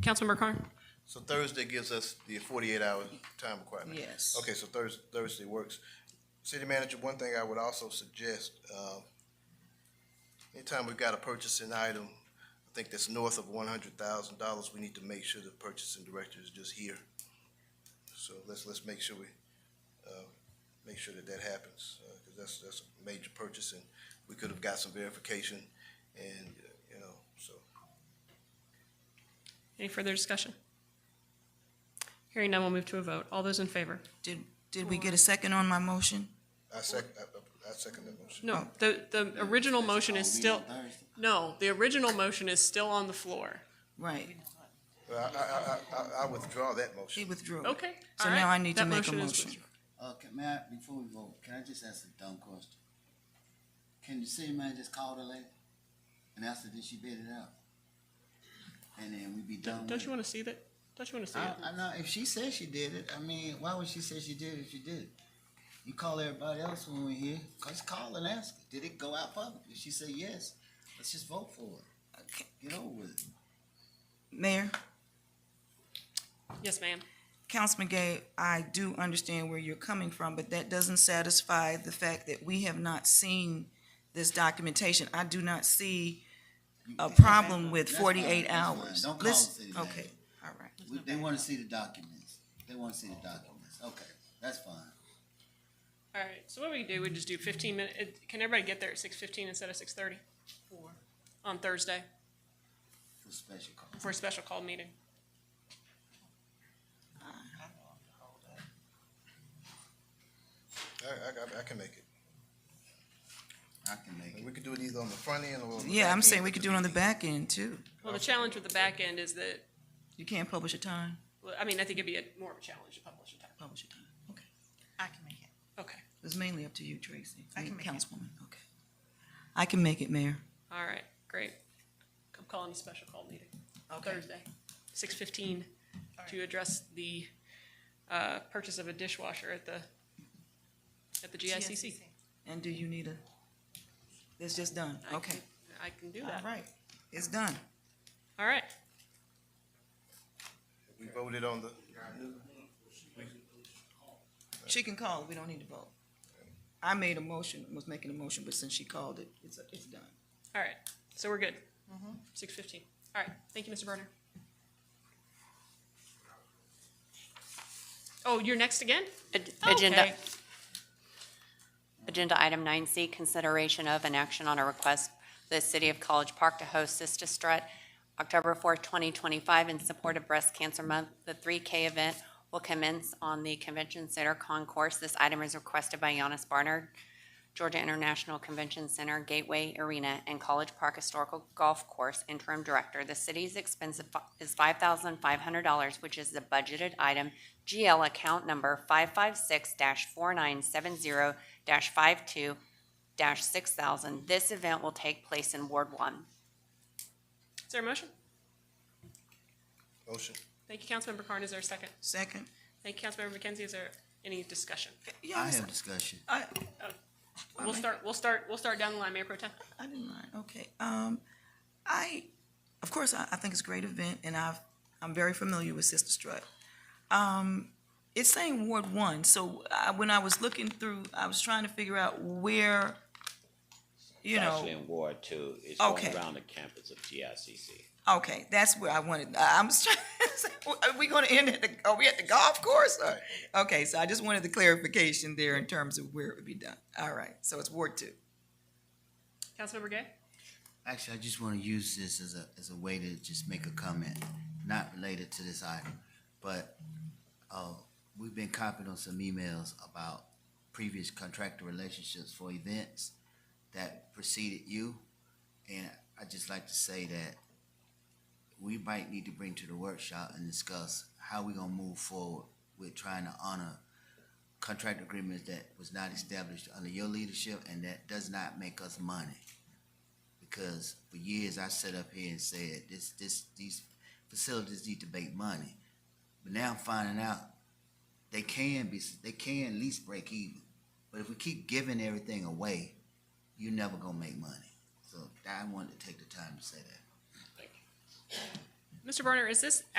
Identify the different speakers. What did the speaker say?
Speaker 1: Councilmember Carn?
Speaker 2: So Thursday gives us the forty-eight hour time requirement?
Speaker 3: Yes.
Speaker 2: Okay, so Thurs, Thursday works. City manager, one thing I would also suggest, uh, anytime we've got a purchasing item, I think that's north of one hundred thousand dollars, we need to make sure the purchasing director is just here. So let's, let's make sure we, uh, make sure that that happens, uh, cause that's, that's a major purchase and we could have got some verification and, uh, you know, so.
Speaker 1: Any further discussion? Hearing none, we'll move to a vote. All those in favor?
Speaker 3: Did, did we get a second on my motion?
Speaker 2: I sec, I, I- I second that motion.
Speaker 3: Oh.
Speaker 1: No, the, the original motion is still, no, the original motion is still on the floor.
Speaker 3: Right,
Speaker 2: Well, I, I, I, I- I withdraw that
Speaker 3: she
Speaker 2: motion.
Speaker 3: withdrew.
Speaker 1: Okay,
Speaker 3: So
Speaker 1: all right.
Speaker 3: now I need to
Speaker 1: That
Speaker 3: make a
Speaker 1: motion is
Speaker 3: motion.
Speaker 1: withdrawn.
Speaker 4: Uh, can, may I, before we vote, can I just ask a dumb question? Can the city man just call the lady and ask her, did she bid it out? And then we be done with
Speaker 1: Don't
Speaker 4: it.
Speaker 1: you want to see that? Don't you want to see
Speaker 4: I,
Speaker 1: it?
Speaker 4: I know, if she said she did it, I mean, why would she say she did it if she did it? You call everybody else when we're here, just call and ask, her, did it go out public? If she said yes, let's just vote for it,
Speaker 3: Okay.
Speaker 4: get over with it.
Speaker 3: Mayor,
Speaker 1: Yes, ma'am.
Speaker 3: Councilman Gay, I do understand where you're coming from, but that doesn't satisfy the fact that we have not seen this documentation. I do not see a problem with
Speaker 4: That's fine,
Speaker 3: forty-eight
Speaker 4: that's fine.
Speaker 3: hours.
Speaker 4: Don't call
Speaker 3: Let's-
Speaker 4: the city manager.
Speaker 3: Okay, all right.
Speaker 4: We- They wanna see the documents, they wanna see the documents, okay, that's fine.
Speaker 1: All right, so what we do, we just do fifteen minute, can everybody get there at six fifteen instead of six thirty? On Thursday
Speaker 4: For special call.
Speaker 1: for a special call meeting.
Speaker 2: I, I, I can make it.
Speaker 4: I can make it.
Speaker 2: And we could do it either on the front end or on the back
Speaker 3: Yeah, I'm
Speaker 2: end
Speaker 3: saying we
Speaker 2: of
Speaker 3: could
Speaker 2: the
Speaker 3: do it on the
Speaker 2: meeting.
Speaker 3: back end too.
Speaker 1: Well, the challenge with the back end is that,
Speaker 3: You can't publish a time,
Speaker 1: well, I mean, I think it'd be a more of a challenge to publish a time.
Speaker 3: publish a time, okay.
Speaker 5: I can make it.
Speaker 1: Okay,
Speaker 3: It's mainly up to you, Tracy.
Speaker 5: I can make it.
Speaker 3: Councilwoman, okay. I can make it, Mayor.
Speaker 1: all right, great. I'm calling a special call meeting. Thursday, six fifteen, to address the, uh, purchase of a dishwasher at the, at the GICC.
Speaker 3: And do you need a, it's just done,
Speaker 1: I can-
Speaker 3: okay.
Speaker 1: I can do
Speaker 3: All
Speaker 1: that.
Speaker 3: right, it's done.
Speaker 1: All right,
Speaker 2: We voted on the,
Speaker 3: She can call, we don't need to vote. I made a motion, was making a motion, but since she called it, it's, it's done.
Speaker 1: all right, so we're good.
Speaker 3: Mm-hmm.
Speaker 1: Six fifteen, all right, thank you, Mr. Berner. Oh, you're next again?
Speaker 6: Ag- Agenda,
Speaker 1: Okay.
Speaker 6: agenda item nine C, consideration of an action on a request for the City of College Park to host Sister Strut October fourth, twenty twenty-five in support of Breast Cancer Month. The three K event will commence on the Convention Center Concourse. This item is requested by Giannis Barnard, Georgia International Convention Center Gateway Arena and College Park Historical Golf Course Interim Director. The city's expense is five thousand five hundred dollars, which is the budgeted item GL account number five five six four nine seven zero 52 six thousand. This event will take place in Ward One.
Speaker 1: Is there a motion?
Speaker 2: motion.
Speaker 1: Thank you, Councilmember Carn, is there a second?
Speaker 3: Second?
Speaker 1: Thank you, Councilmember McKenzie, is there any discussion?
Speaker 4: I
Speaker 3: Yes,
Speaker 4: have discussion.
Speaker 3: I,
Speaker 1: We'll start, we'll start, we'll start down the line, Mayor Pro Tem.
Speaker 3: I didn't mind, okay. Um, I, of course, I, I think it's a great event, and I've, I'm very familiar with Sister Strut. Um, it's saying Ward One, so I, when I was looking through, I was trying to figure out where, you
Speaker 7: It's
Speaker 3: know.
Speaker 7: actually in Ward Two. It's going
Speaker 3: Okay.
Speaker 7: around the campus of GICC.
Speaker 3: Okay, that's where I wanted, I- I'm just trying to say, are we gonna end at the, are we at the golf course? or- Okay, so I just wanted the clarification there in terms of where it would be done. All right, so it's Ward two.
Speaker 1: Councilmember Gay?
Speaker 4: Actually, I just want to use this as a, as a way to just make a comment, not related to this item, but, uh, we've been copied on some emails about previous contractor relationships for events that preceded you. And i just like to say that we might need to bring to the workshop and discuss how we are gonna move forward with trying to honor contract agreements that was not established under your leadership and that does not make us money because for years I sat up here and said this this these facilities need to make money. But now I'm finding out they can be they can at least break even. But if we keep giving everything away, you're never gonna make money. So I wanted to take the time to say that.
Speaker 1: Mr. Berner, is this